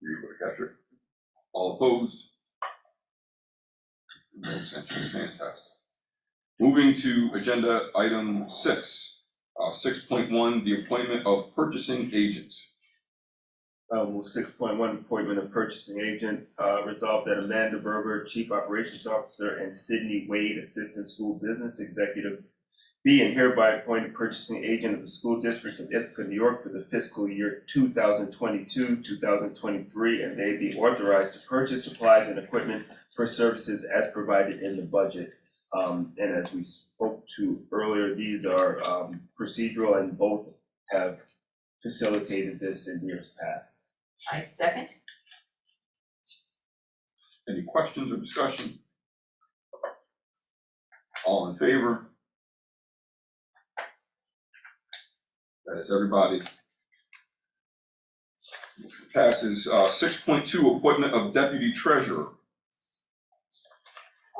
You're able to catch it. All opposed? No abstentions, fantastic. Moving to agenda item six, uh, six point one, the appointment of purchasing agents. Um, six point one, appointment of purchasing agent, uh, resolved that Amanda Berber, Chief Operations Officer, and Sydney Wade, Assistant School Business Executive, be and hereby appointed purchasing agent of the School District of Ithaca, New York for the fiscal year two thousand twenty-two, two thousand twenty-three, and they be authorized to purchase supplies and equipment for services as provided in the budget. Um, and as we spoke to earlier, these are, um, procedural and both have facilitated this in years past. I second, Any questions or discussion? All in favor? That is everybody. Motion Passes, uh, six point two, appointment of deputy treasurer.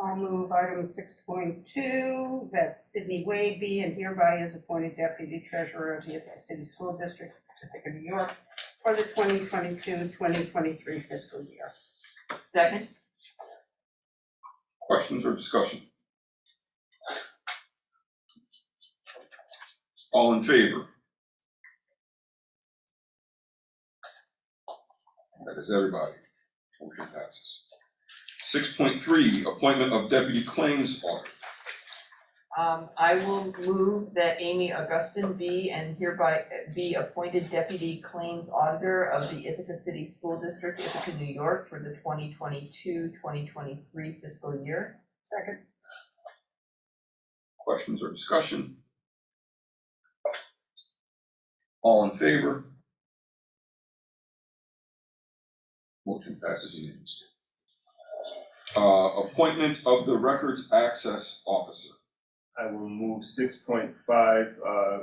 I'll Uh, move item six point two, that Sydney Wade be and hereby is appointed deputy treasurer of the Ithaca City School District, Ithaca, New York, for the 2022-2023 fiscal year. second, Questions or discussion? All in favor? That is everybody. Motion passes. Six point three, appointment of deputy claims auditor. um, I will move that Amy Augustine be and hereby be appointed deputy claims auditor of the Ithaca City School District, Ithaca, New York, for the 2022-2023 fiscal year. Second, Questions or discussion? All in favor? Motion passes unanimously. Uh, appointment of the Records Access Officer. I will move six point five, uh,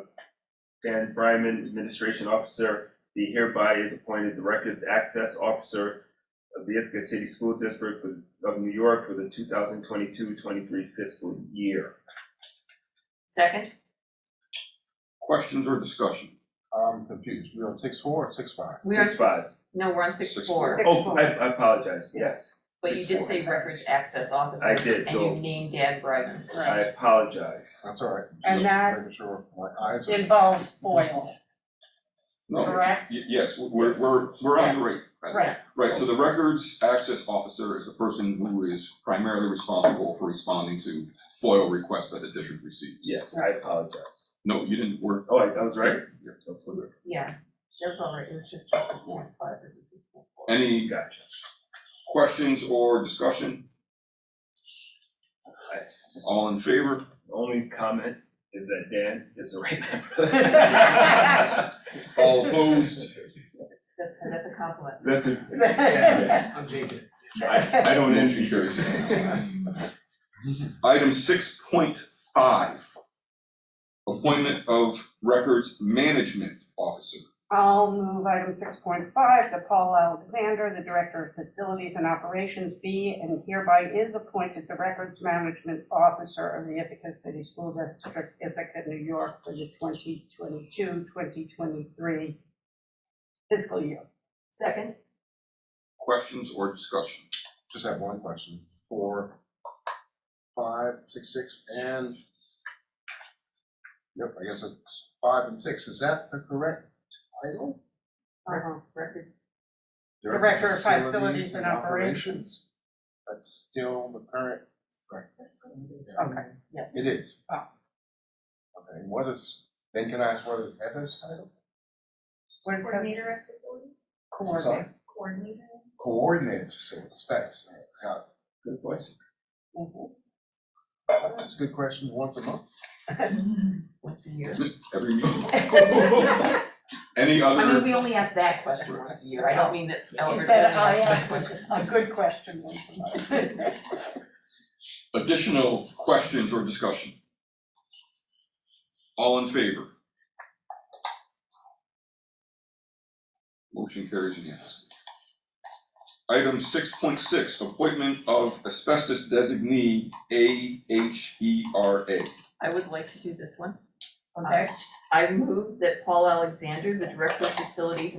Dan Bryman, Administration Officer, be hereby is appointed the Records Access Officer of the Ithaca City School District of- of New York for the 2022-23 fiscal year. Second, Questions or discussion? I'm confused, we're on six four or six five? we are. Six five. No, we're on six Six four, four. Oh, I, I apologize, yes, but you did say records access officer. I did, And so- you named Dan Bryman. I apologize. That's all right. And Just that- Making sure my eyes are. involves oil. No, Correct. y- yes, we're, we're, we're on the right. Right. Right, so the Records Access Officer is the person who is primarily responsible for responding to FOIL requests that the district receives. Yes, I apologize. No, you didn't, we Oh, I I was right. Yeah, that's all right, it was just six point five, it was six point four. any Gotcha. Questions or discussion? All in favor? Only comment is that Dan is the right member. All opposed? That's, that's a compliment. That's a, yes. I, I don't Motion envy you. carries. Item six point five. Appointment of Records Management Officer. I'll move item six point five, that Paul Alexander, the Director of Facilities and Operations, be and hereby is appointed the Records Management Officer of the Ithaca City School District, Ithaca, New York, for the 2022-2023 fiscal year. Second, Questions or discussion? Just have one question, four, five, six, six, and. Yep, I guess it's five and six, is that the correct title? Uh-huh. record, Director of Facilities and Operations. That's still the current, Okay, yeah. it is. Oh. Okay, what is, then can I ask what is Heather's title? where's the Coordinator of facilities, coordinator? coordinator. Coordinated facilities, thanks, Uh, got it. Good question. Mhm. That's a good question, once a month. once a year. Every meeting. I Any mean, other? we only ask that question once a year, I don't mean that He Elbert only said, I asks that asked question. Mm-hmm. a good question. Nancy. Additional questions or discussion? All in favor? Motion carries unanimously. Item six point six, appointment of asbestos designee A H E R A. I would like to do this one. Okay. I move that Paul Alexander, the Director of Facilities